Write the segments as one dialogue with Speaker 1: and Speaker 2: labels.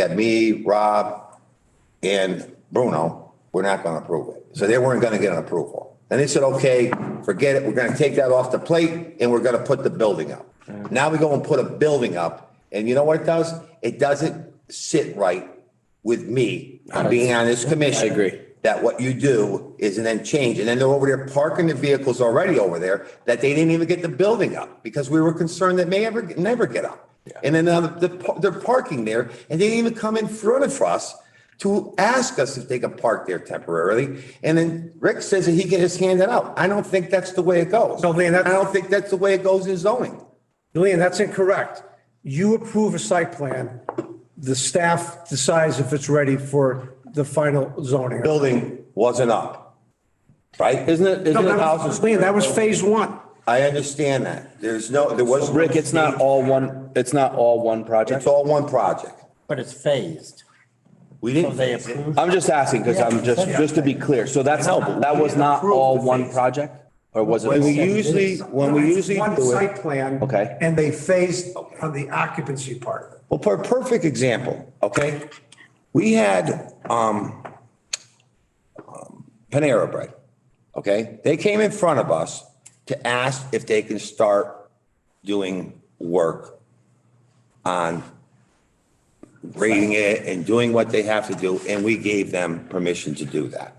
Speaker 1: that me, Rob, and Bruno, we're not gonna approve it. So they weren't gonna get an approval. And they said, okay, forget it, we're gonna take that off the plate and we're gonna put the building up.
Speaker 2: Mm.
Speaker 1: Now we go and put a building up, and you know what it does? It doesn't sit right with me, on being on this commission.
Speaker 2: I agree.
Speaker 1: That what you do is and then change, and then they're over there parking the vehicles already over there, that they didn't even get the building up, because we were concerned that may ever, never get up. And then now the, the- they're parking there, and they didn't even come in front of us to ask us if they could park there temporarily. And then Rick says that he can just hand it out. I don't think that's the way it goes.
Speaker 3: No, Leon, that's-
Speaker 1: I don't think that's the way it goes in zoning.
Speaker 3: Lean, that's incorrect. You approve a site plan, the staff decides if it's ready for the final zoning.
Speaker 1: Building wasn't up, right?
Speaker 2: Isn't it, isn't it houses?
Speaker 3: Lean, that was phase one.
Speaker 1: I understand that. There's no, there was.
Speaker 2: Rick, it's not all one, it's not all one
Speaker 1: It's
Speaker 2: project.
Speaker 1: all one project.
Speaker 4: But it's phased.
Speaker 1: We
Speaker 4: So
Speaker 1: didn't.
Speaker 4: they approve.
Speaker 2: I'm just asking because I'm just, just to be clear. So that's, that was not all one project? Or was
Speaker 1: When we
Speaker 2: it?
Speaker 1: usually, when we usually
Speaker 3: One
Speaker 1: do it.
Speaker 3: site plan.
Speaker 2: Okay.
Speaker 3: And they phased on the occupancy part.
Speaker 1: Well, for a perfect example, okay? We had, um, um, Panera Bread, okay? They came in front of us to ask if they can start doing work on grading it and doing what they have to do, and we gave them permission to do that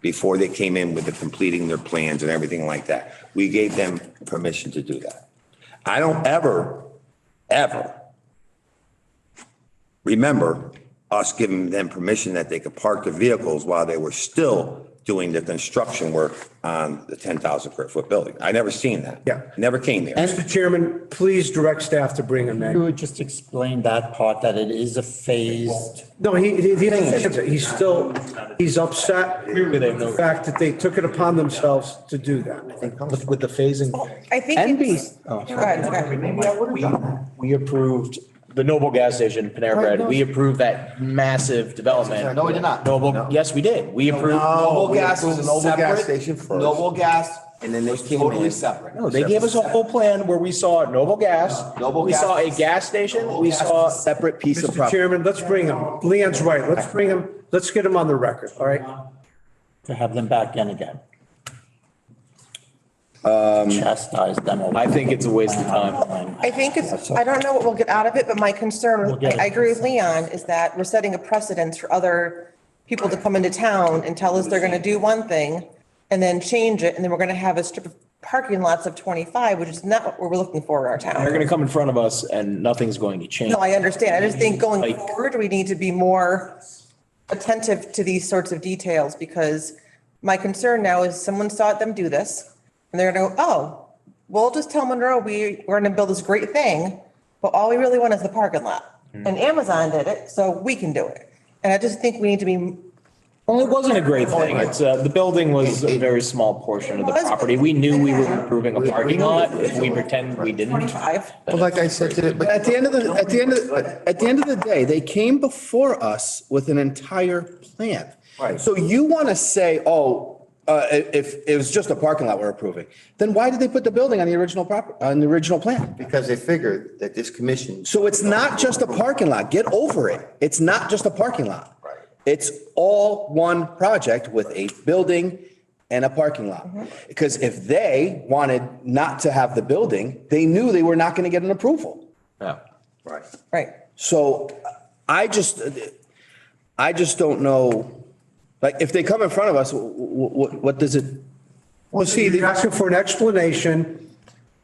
Speaker 1: before they came in with the completing their plans and everything like that. We gave them permission to do that. I don't ever, ever remember us giving them permission that they could park their vehicles while they were still doing the construction work on the 10,000 square foot building. I never seen that.
Speaker 3: Yeah.
Speaker 1: Never came there.
Speaker 3: Mr. Chairman, please direct staff to bring him
Speaker 4: You
Speaker 3: in.
Speaker 4: would just explain that part, that it is a phased.
Speaker 3: No, he, he, he understands it. he's still, he's upset with the fact that they took it upon themselves to do that.
Speaker 5: With, with the phasing,
Speaker 6: I think it's. Go ahead, go ahead.
Speaker 5: we, we approved the Noble gas station, Panera Bread. We approved that massive development.
Speaker 7: No, we did not.
Speaker 5: Noble, yes, we did. We approved.
Speaker 7: Noble
Speaker 1: we
Speaker 7: Gas
Speaker 1: approved
Speaker 7: was
Speaker 1: Noble Gas
Speaker 7: separate.
Speaker 1: Station first.
Speaker 7: Noble Gas
Speaker 1: And then they
Speaker 7: was
Speaker 1: came
Speaker 7: totally
Speaker 1: in.
Speaker 7: separate.
Speaker 5: No, they gave us a whole plan where we saw Noble Gas.
Speaker 7: Noble
Speaker 5: We
Speaker 7: Gas
Speaker 5: saw a
Speaker 7: was-
Speaker 5: gas station.
Speaker 7: Noble
Speaker 5: We
Speaker 7: Gas
Speaker 5: saw.
Speaker 7: was
Speaker 5: Separate piece
Speaker 3: Mr. Chairman, let's bring him, Leon's right, let's bring him, let's get him on the record, all right?
Speaker 4: To have them back in again. Chastise them. over-
Speaker 5: Um, I think it's a waste of time.
Speaker 6: I think it's, I don't know what we'll get out of it, but my concern, I I agree with Leon, is that we're setting a precedence for other people to come into town and tell us they're gonna do one thing and then change it, and then we're gonna have a strip of parking lots of twenty-five, which is not what we're looking for in our
Speaker 5: They're
Speaker 6: town.
Speaker 5: gonna come in front of us and nothing's going to change.
Speaker 6: No, I understand. I just think going
Speaker 5: Like-
Speaker 6: forward, we need to be more attentive to these sorts of details because my concern now is someone saw them do this and they're gonna go, oh, well, just tell Monroe we, we're gonna build this great thing, but all we really want is the parking lot. And Amazon did it, so we can do it. And I just think we need to be,
Speaker 5: Well, it wasn't a great thing. It's, uh, the building was a very small portion of the property. We knew we were improving a parking lot. If we pretend we didn't,
Speaker 6: I've,
Speaker 7: Well, like I said today,
Speaker 8: But at the end of the, at the end of, at the end of the day, they came before us with an entire plan.
Speaker 1: Right.
Speaker 8: So you want to say, oh, uh, i- if it was just a parking lot we're approving, then why did they put the building on the original proper, on the original plan?
Speaker 1: Because they figured that this commission.
Speaker 8: So it's not just a parking lot. Get over it. It's not just a parking lot.
Speaker 1: Right.
Speaker 8: It's all one project with a building and a parking lot.
Speaker 1: Mm-hmm.
Speaker 8: Because if they wanted not to have the building, they knew they were not going to get an approval.
Speaker 1: Right.
Speaker 6: right.
Speaker 8: So I just, I just don't know, like, if they come in front of us, what, what does it,
Speaker 3: Well, see, you're asking for an explanation.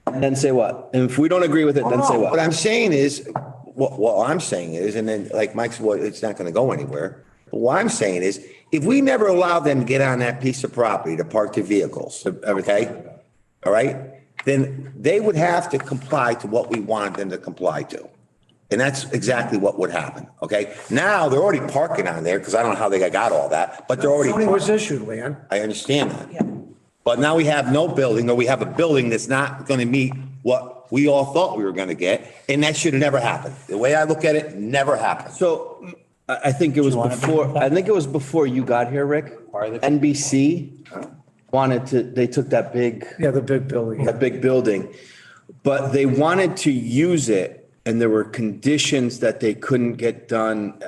Speaker 8: and then say what? And if we don't agree with it, then say
Speaker 1: No, What
Speaker 8: what?
Speaker 1: I'm saying is, what, what I'm saying is, and then like Mike's, well, it's not gonna go anywhere. But what I'm saying is, if we never allow them to get on that piece of property to park their vehicles, okay? All right, then they would have to comply to what we wanted them to comply to. And that's exactly what would happen, okay? Now, they're already parking on there, because I don't know how they got all that, but they're already.
Speaker 3: Zoning was issued, Leon.
Speaker 1: I understand that.
Speaker 6: Yeah.
Speaker 1: But now we have no building, or we have a building that's not gonna meet what we all thought we were gonna get, and that should have never happened. The way I look at it, never happened.
Speaker 8: So I, I think it was
Speaker 4: wanna bring it
Speaker 8: before,
Speaker 4: back?
Speaker 8: I think it was before you got here, Rick. NBC wanted to, they took that big.
Speaker 3: Yeah, the big building.
Speaker 8: a big building, but they wanted to use it and there were conditions that they couldn't get done